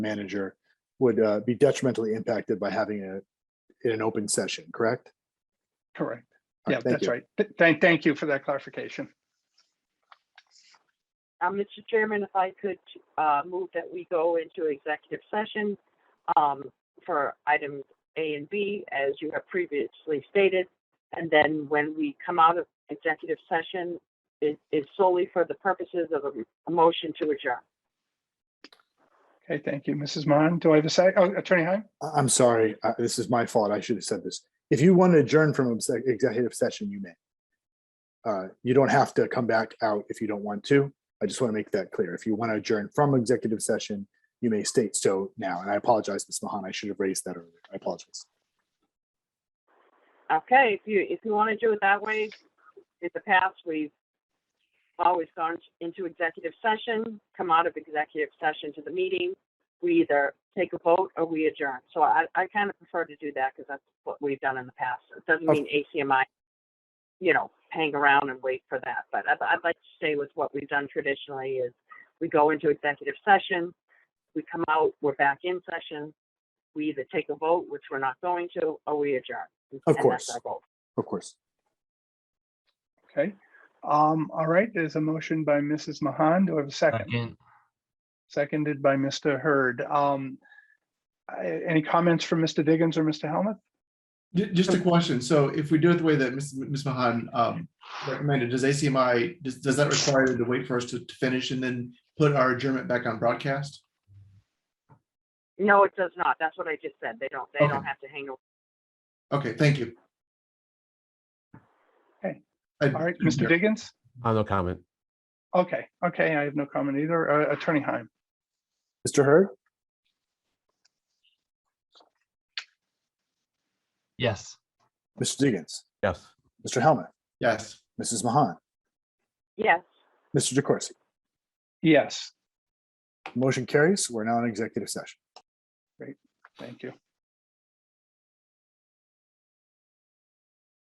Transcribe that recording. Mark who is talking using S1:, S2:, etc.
S1: manager would uh, be detrimentally impacted by having it in an open session, correct?
S2: Correct.
S1: All
S2: Yeah,
S1: right, thank
S2: that's
S1: you.
S2: right. Th- Thank, thank you for that clarification.
S3: Uh, Mr. Chairman, if I could, uh, move that we go into executive session, um, for items A and B, as you have previously stated. And then when we come out of executive session, it is solely for the purposes of a, a motion to adjourn.
S2: Okay, thank you, Mrs. Mahan. Do I have a say? Oh, Attorney Heim?
S1: I- I'm sorry, uh, this is my fault. I should have said this. If you want to adjourn from obse- executive session, you may. Uh, You don't have to come back out if you don't want to. I just want to make that clear. If you want to adjourn from executive session, you may state so now. And I apologize, Ms. Mahan, I should have raised that earlier. I apologize.
S3: Okay, if you, if you want to do it that way, in the past, we've always gone into executive session, come out of executive session to the meeting. We either take a vote or we adjourn. So I, I kind of prefer to do that because that's what we've done in the past. It doesn't
S1: Of-
S3: mean ACMI, you know, hang around and wait for that. But I'd, I'd like to stay with what we've done traditionally is we go into executive session, we come out, we're back in session. We either take a vote, which we're not going to, or we adjourn.
S1: Of
S3: and that's
S1: course.
S3: our vote.
S1: Of course.
S2: Okay. Um, all right, there's a motion by Mrs. Mahan. Do I have a second?
S4: Second,
S2: Seconded by Mr. Hurd. Um, I- any comments from Mr. Diggins or Mr. Helmuth?
S5: Ju- Just a question. So if we do it the way that Ms. Ms. Mahan um, recommended, does ACMI, does, does that require them to wait for us to to finish and then put our adjournment back on broadcast?
S3: No, it does not. That's what I just said. They don't, they don't
S5: Okay.
S3: have to hang around.
S5: Okay, thank you.
S2: Okay.
S5: I-
S2: All right, Mr. Diggins?
S6: Uh, no comment.
S2: Okay, okay, I have no comment either. Uh, Attorney Heim?
S1: Mr. Hurd,
S4: yes.
S1: Mr. Diggins,
S6: Yes.
S1: Mr. Helmut,
S5: Yes.
S1: Mrs. Mahan,
S3: Yes,
S1: Mr. DeCoursey.
S2: Yes,
S1: Motion carries. We're now in executive session.
S2: thank you.